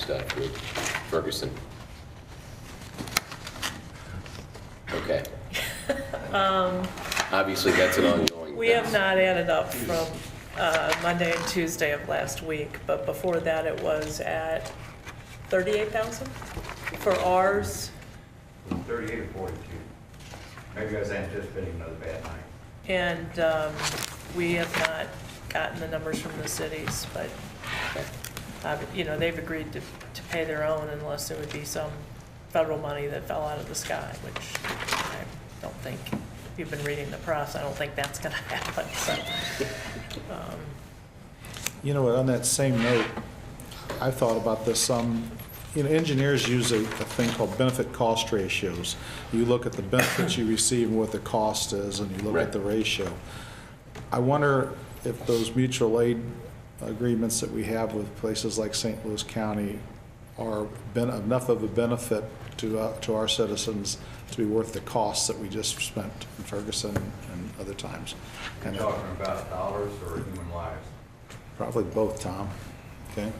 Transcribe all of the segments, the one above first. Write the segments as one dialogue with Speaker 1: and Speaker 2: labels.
Speaker 1: stuff with Ferguson? Okay. Obviously, that's an ongoing.
Speaker 2: Um, We have not added up from uh, Monday and Tuesday of last week, but before that, it was at 38,000 for ours,
Speaker 3: Thirty-eight or forty-two. Maybe I was anticipating another bad night.
Speaker 2: and um, we have not gotten the numbers from the cities, but,
Speaker 1: Okay.
Speaker 2: uh, you know, they've agreed to, to pay their own unless there would be some federal money that fell out of the sky, which I don't think, if you've been reading the press, I don't think that's going to happen, so. um,
Speaker 4: You know what, on that same note, I thought about this, um, you know, engineers use a, a thing called benefit cost ratios. You look at the benefits you receive and what the cost is, and you look
Speaker 1: Right.
Speaker 4: at the ratio. I wonder if those mutual aid agreements that we have with places like St. Louis County are ben enough of a benefit to, uh, to our citizens to be worth the costs that we just spent in Ferguson and other times.
Speaker 3: You're
Speaker 4: And
Speaker 3: talking about dollars or human lives?
Speaker 4: Probably both, Tom. Okay?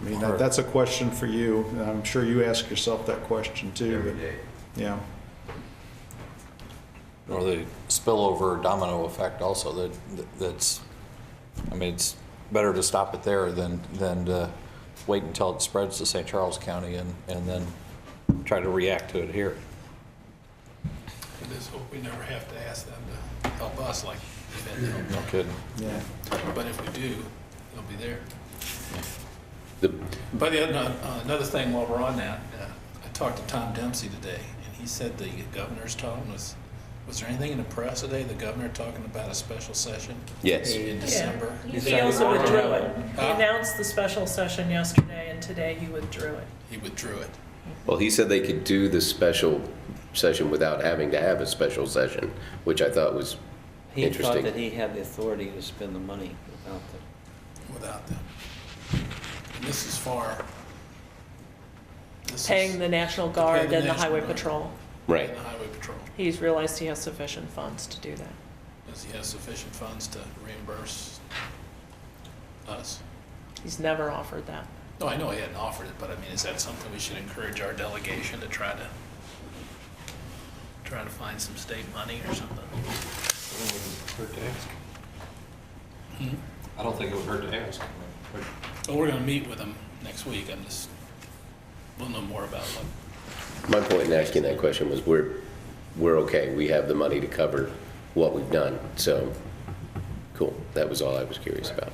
Speaker 4: I mean, that- that's a question for you, and I'm sure you ask yourself that question too.
Speaker 3: Every
Speaker 4: but-
Speaker 3: day.
Speaker 4: Yeah.
Speaker 5: Or the spillover domino effect also, that, that's, I mean, it's better to stop it there than, than to wait until it spreads to St. Charles County and, and then try to react to it here.
Speaker 6: I just hope we never have to ask them to help us like they've had to help
Speaker 5: No kidding.
Speaker 4: Yeah.
Speaker 6: them. But if we do, they'll be there.
Speaker 1: The,
Speaker 6: But the other- uh, another thing while we're on that, uh, I talked to Tom Dempsey today, and he said the governor's tone was, was there anything in the press today, the governor talking about a special session
Speaker 1: yes.
Speaker 6: in December?
Speaker 2: He also withdrew it. He announced the special session yesterday, and today he withdrew it.
Speaker 6: He withdrew it.
Speaker 1: Well, he said they could do the special session without having to have a special session, which I thought was
Speaker 7: He thought that
Speaker 1: interesting.
Speaker 7: he had the authority to spend the money without the,
Speaker 6: without them. And this is far. this is
Speaker 2: Paying the National
Speaker 6: Paying
Speaker 2: Guard
Speaker 6: the
Speaker 2: and the
Speaker 6: National
Speaker 2: Highway
Speaker 6: Guard.
Speaker 2: Patrol.
Speaker 1: Right.
Speaker 6: And the highway patrol,
Speaker 2: He's realized he has sufficient funds to do that.
Speaker 6: does he have sufficient funds to reimburse us?
Speaker 2: He's never offered that.
Speaker 6: No, I know he hadn't offered it, but I mean, is that something we should encourage our delegation to try to, try to find some state money or something?
Speaker 5: I don't think it would hurt to ask.
Speaker 6: But we're gonna meet with him next week, I'm just, we'll know more about what,
Speaker 1: My point in asking that question was we're, we're okay. We have the money to cover what we've done. So, cool. That was all I was curious about.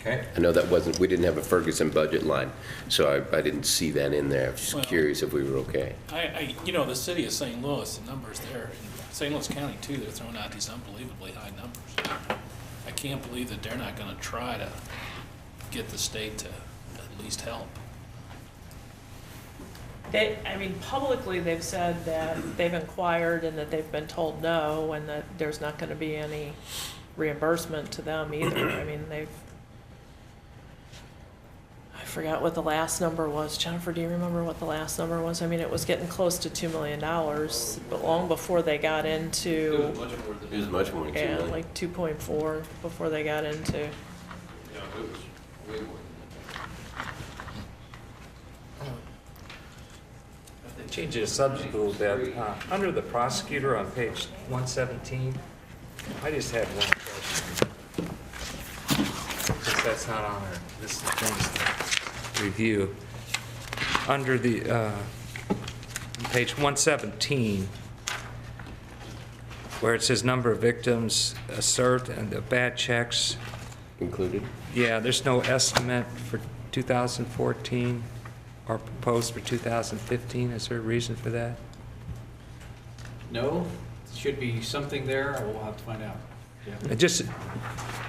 Speaker 5: Okay.
Speaker 1: I know that wasn't, we didn't have a Ferguson budget line, so I, I didn't see that in there. I was
Speaker 6: Well-
Speaker 1: just curious if we were okay.
Speaker 6: I, I, you know, the city of St. Louis, the numbers there, in St. Louis County too, they're throwing out these unbelievably high numbers. I can't believe that they're not gonna try to get the state to at least help.
Speaker 2: They, I mean, publicly, they've said that they've inquired and that they've been told no, and that there's not going to be any reimbursement to them either. I mean, they've, I forgot what the last number was. Jennifer, do you remember what the last number was? I mean, it was getting close to $2 million, but long before they got into,
Speaker 1: It was much more than
Speaker 2: yeah, like 2.4, before they got into,
Speaker 8: Changing the subject a little bit, uh, under the prosecutor on page 117, I just have one question. Because that's not on there, this is things to review. Under the, uh, page 117, where it says number of victims assert and the bad checks,
Speaker 1: Included?
Speaker 8: yeah, there's no estimate for 2014 or proposed for 2015. Is there a reason for that?
Speaker 9: No, should be something there, and we'll have to find out.
Speaker 8: I just,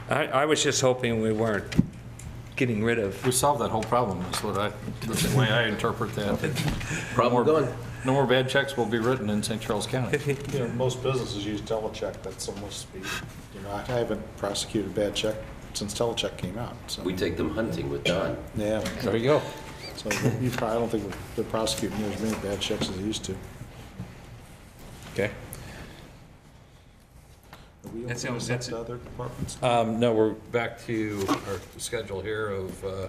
Speaker 8: I, I was just hoping we weren't getting rid of,
Speaker 5: We solved that whole problem, is what I, that's the way I interpret that.
Speaker 1: Problem
Speaker 5: No more-
Speaker 1: gone.
Speaker 5: No more bad checks will be written in St. Charles County.
Speaker 4: You know, most businesses use telecheck, that's almost, speed. you know, I haven't prosecuted bad check since telecheck came out, so.
Speaker 1: We take them hunting with Don.
Speaker 4: Yeah,
Speaker 5: There you go.
Speaker 4: so you probably, I don't think they're prosecuting as many bad checks as they used to.
Speaker 5: Okay.
Speaker 4: Are we
Speaker 8: That's-
Speaker 4: opening this up
Speaker 8: that's-
Speaker 4: to other departments?
Speaker 5: Um, no, we're back to our schedule here of, uh,